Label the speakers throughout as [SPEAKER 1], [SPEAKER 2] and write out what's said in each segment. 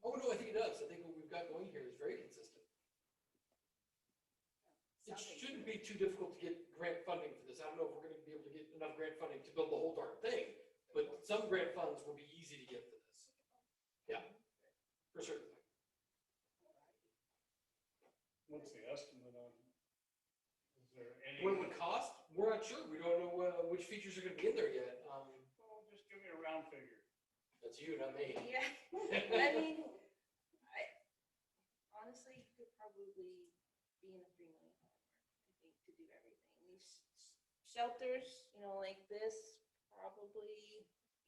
[SPEAKER 1] Oh, be too difficult to get grant funding for this. I don't know if we're gonna be able to get enough grant funding to build the whole darn thing, but some grant funds will be easy to get for this. Yeah, for sure.
[SPEAKER 2] What's the estimate on? Is there any?
[SPEAKER 1] What it would cost, we're not sure. We don't know uh, which features are gonna be in there yet. Um,
[SPEAKER 2] Well, Oh, just give me a round figure.
[SPEAKER 1] that's you, not me.
[SPEAKER 3] Yeah, I mean, I, honestly, you could probably be in the three million dollar mark, I think, to do everything. These s- shelters, you know, like this, probably,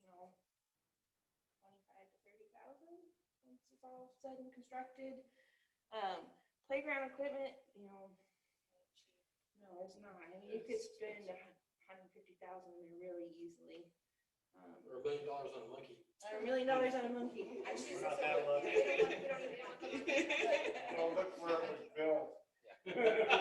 [SPEAKER 3] you know, twenty-five to thirty thousand, once it's all said and constructed. Um, playground equipment, you know, no, it's not. I mean, you could
[SPEAKER 1] It's-
[SPEAKER 3] spend a hundred and fifty thousand there really easily. Um,
[SPEAKER 1] Or a million dollars on a monkey.
[SPEAKER 3] a million dollars on a monkey.
[SPEAKER 2] We're not that lucky. Well, look where it was built.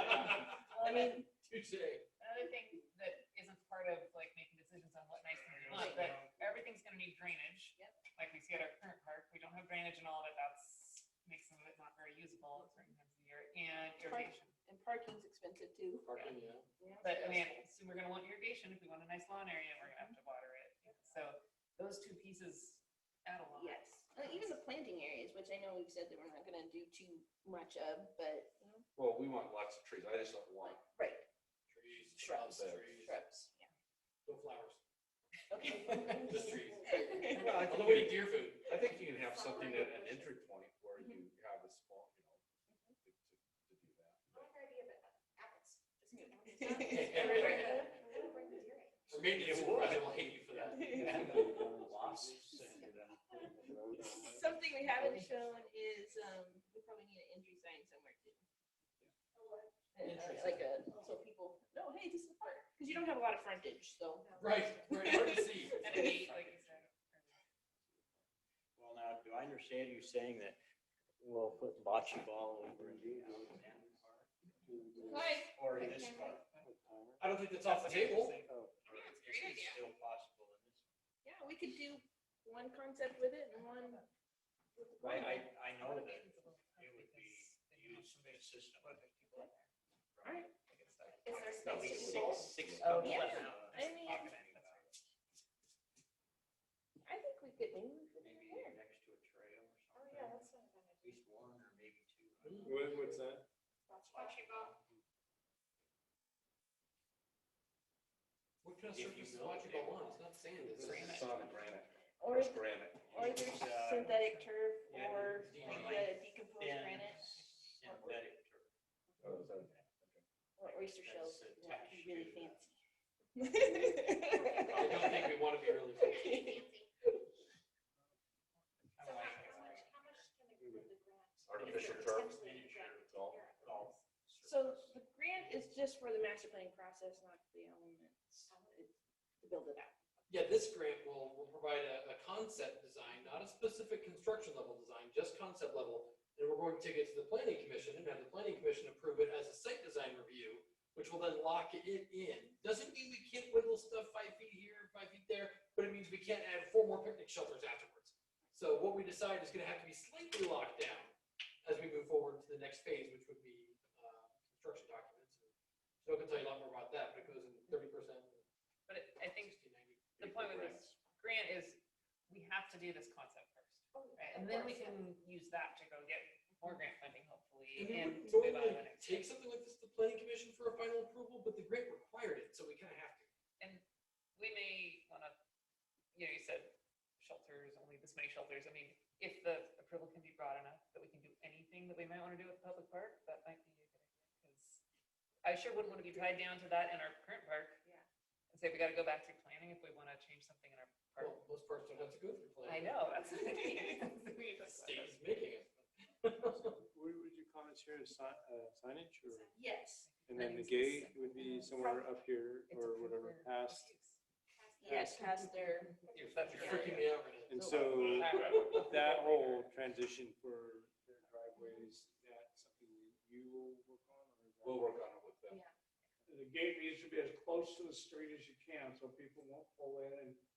[SPEAKER 3] I mean,
[SPEAKER 1] Tuesday.
[SPEAKER 4] Another thing that isn't part of like making decisions on what nice and not, but everything's gonna need drainage.
[SPEAKER 3] Yep.
[SPEAKER 4] Like we see at our current park, we don't have drainage and all of it, that's, makes some of it not very usable at certain times of the year, and irrigation.
[SPEAKER 3] and parking's expensive too.
[SPEAKER 1] Parking, yeah.
[SPEAKER 4] But I mean, so we're gonna want irrigation, if we want a nice lawn area, we're gonna have to water it, so those two pieces add a lot.
[SPEAKER 3] Yes, Uh, even the planting areas, which I know we've said that we're not gonna do too much of, but, you know,
[SPEAKER 5] Well, we want lots of trees. I just don't want,
[SPEAKER 3] like, right,
[SPEAKER 1] Trees.
[SPEAKER 3] Shrubs.
[SPEAKER 1] Trees.
[SPEAKER 3] shrubs, yeah.
[SPEAKER 1] No flowers.
[SPEAKER 3] Okay.
[SPEAKER 1] Just trees.
[SPEAKER 5] Well, I
[SPEAKER 1] On the
[SPEAKER 5] think
[SPEAKER 1] way to deer food.
[SPEAKER 5] I think you can have something at an entry point where you
[SPEAKER 3] Mm-hmm.
[SPEAKER 5] have a small, you know, to, to to do that.
[SPEAKER 1] Or maybe
[SPEAKER 2] It
[SPEAKER 1] it's,
[SPEAKER 2] would.
[SPEAKER 1] I will hate you for that.
[SPEAKER 3] Something we haven't shown is, um, we probably need an entry sign somewhere too. And, uh,
[SPEAKER 1] Entry
[SPEAKER 3] Like a, so people know, hey, this is a park, because you don't have a lot of frontage, so.
[SPEAKER 1] Right, right, hard to see.
[SPEAKER 4] And a gate, like you said.
[SPEAKER 6] Well, now, do I understand you saying that we'll put bocce ball over in
[SPEAKER 3] Like,
[SPEAKER 6] Or this Oh. part?
[SPEAKER 1] I don't think that's off the table.
[SPEAKER 6] Or
[SPEAKER 3] Yeah, it's a
[SPEAKER 6] is
[SPEAKER 3] great
[SPEAKER 6] it
[SPEAKER 3] idea.
[SPEAKER 6] Still possible in this.
[SPEAKER 3] yeah, we could do one concept with it and one. with
[SPEAKER 6] I, I,
[SPEAKER 3] one.
[SPEAKER 6] I know that it would be used consistently.
[SPEAKER 3] Alright. Is there
[SPEAKER 6] At
[SPEAKER 3] space
[SPEAKER 6] least
[SPEAKER 3] to do both?
[SPEAKER 6] six, six.
[SPEAKER 4] Oh,
[SPEAKER 6] couple
[SPEAKER 3] yeah.
[SPEAKER 6] of, uh,
[SPEAKER 3] I mean-
[SPEAKER 6] pocket
[SPEAKER 3] I think we could, maybe we could do
[SPEAKER 6] Maybe
[SPEAKER 3] it
[SPEAKER 6] next to a trail or
[SPEAKER 7] Oh,
[SPEAKER 6] something.
[SPEAKER 7] yeah, that's not a bad
[SPEAKER 6] At
[SPEAKER 7] idea.
[SPEAKER 6] least one or maybe two.
[SPEAKER 5] What, what's that?
[SPEAKER 7] Bocce ball.
[SPEAKER 1] What kind of
[SPEAKER 6] If you
[SPEAKER 1] surface is
[SPEAKER 6] build
[SPEAKER 1] watching
[SPEAKER 6] it.
[SPEAKER 1] ball on? It's not sand, it's
[SPEAKER 4] Granite.
[SPEAKER 1] sand.
[SPEAKER 5] It's on granite.
[SPEAKER 3] Or,
[SPEAKER 5] It's granite.
[SPEAKER 3] or either
[SPEAKER 6] It's, uh,
[SPEAKER 3] synthetic turf
[SPEAKER 6] yeah,
[SPEAKER 3] or
[SPEAKER 1] it's
[SPEAKER 3] like
[SPEAKER 1] like
[SPEAKER 3] the decomposed
[SPEAKER 6] thin
[SPEAKER 3] granite
[SPEAKER 6] Synthetic turf.
[SPEAKER 5] Oh, is that-
[SPEAKER 3] or oyster shells.
[SPEAKER 6] That's
[SPEAKER 3] Yeah, it'd be really
[SPEAKER 6] attached
[SPEAKER 3] fancy.
[SPEAKER 1] I don't think we want to be really. fancy.
[SPEAKER 7] So how, how much, how much can they put in the ground?
[SPEAKER 5] Artificial
[SPEAKER 7] Is it
[SPEAKER 5] turf,
[SPEAKER 7] potentially in the ground?
[SPEAKER 5] miniature golf,
[SPEAKER 7] Yeah.
[SPEAKER 5] golf.
[SPEAKER 3] So the grant is just for the master planning process, not the elements, It's to build it out.
[SPEAKER 1] Yeah, this grant will, will provide a, a concept design, not a specific construction level design, just concept level. And we're going to take it to the planning commission and have the planning commission approve it as a site design review, which will then lock it in. Doesn't mean we can't wiggle stuff five feet here, five feet there, but it means we can't add four more picnic shelters afterwards. So what we decide is gonna have to be slightly locked down as we move forward to the next phase, which would be, uh, construction documents. So I can tell you a lot more about that, but it goes in thirty percent.
[SPEAKER 4] But it- I think the point with this grant is, we have to do this concept first.
[SPEAKER 7] Oh, yeah.
[SPEAKER 4] Right, and then we can use that to go get more grant funding
[SPEAKER 1] And we
[SPEAKER 4] hopefully and
[SPEAKER 1] wouldn't
[SPEAKER 4] to move on to
[SPEAKER 1] normally
[SPEAKER 4] the next.
[SPEAKER 1] take something like this to the planning commission for a final approval, but the grant required it, so we kind of have to.
[SPEAKER 4] We may wanna, you know, you said shelters, only this many shelters. I mean, if the approval can be broad enough that we can do anything that we might wanna do at the public park, that might be a good idea. 'cause I sure wouldn't wanna be tied down to that in our current park.
[SPEAKER 3] Yeah.
[SPEAKER 4] And say we gotta go back to planning if we wanna change something in our park.
[SPEAKER 1] Well, most parts don't have to go through
[SPEAKER 4] I
[SPEAKER 1] planning.
[SPEAKER 4] know, that's. we
[SPEAKER 1] The
[SPEAKER 4] just-
[SPEAKER 1] state is making it.
[SPEAKER 2] Would, would you comment here, si- uh, signage or,
[SPEAKER 3] Yes,
[SPEAKER 2] and then the gate would be somewhere up here
[SPEAKER 4] It's
[SPEAKER 2] or
[SPEAKER 4] approved
[SPEAKER 2] whatever
[SPEAKER 4] for-
[SPEAKER 2] past?
[SPEAKER 3] yes, past their,
[SPEAKER 1] You're
[SPEAKER 4] That's
[SPEAKER 1] you're
[SPEAKER 4] right.
[SPEAKER 1] freaking me out right now.
[SPEAKER 2] And so that whole transition for their driveways, that something you will work on? or is that-
[SPEAKER 5] We'll work on it with them.
[SPEAKER 2] The gate needs to be as close to the street as you can, so people won't pull in and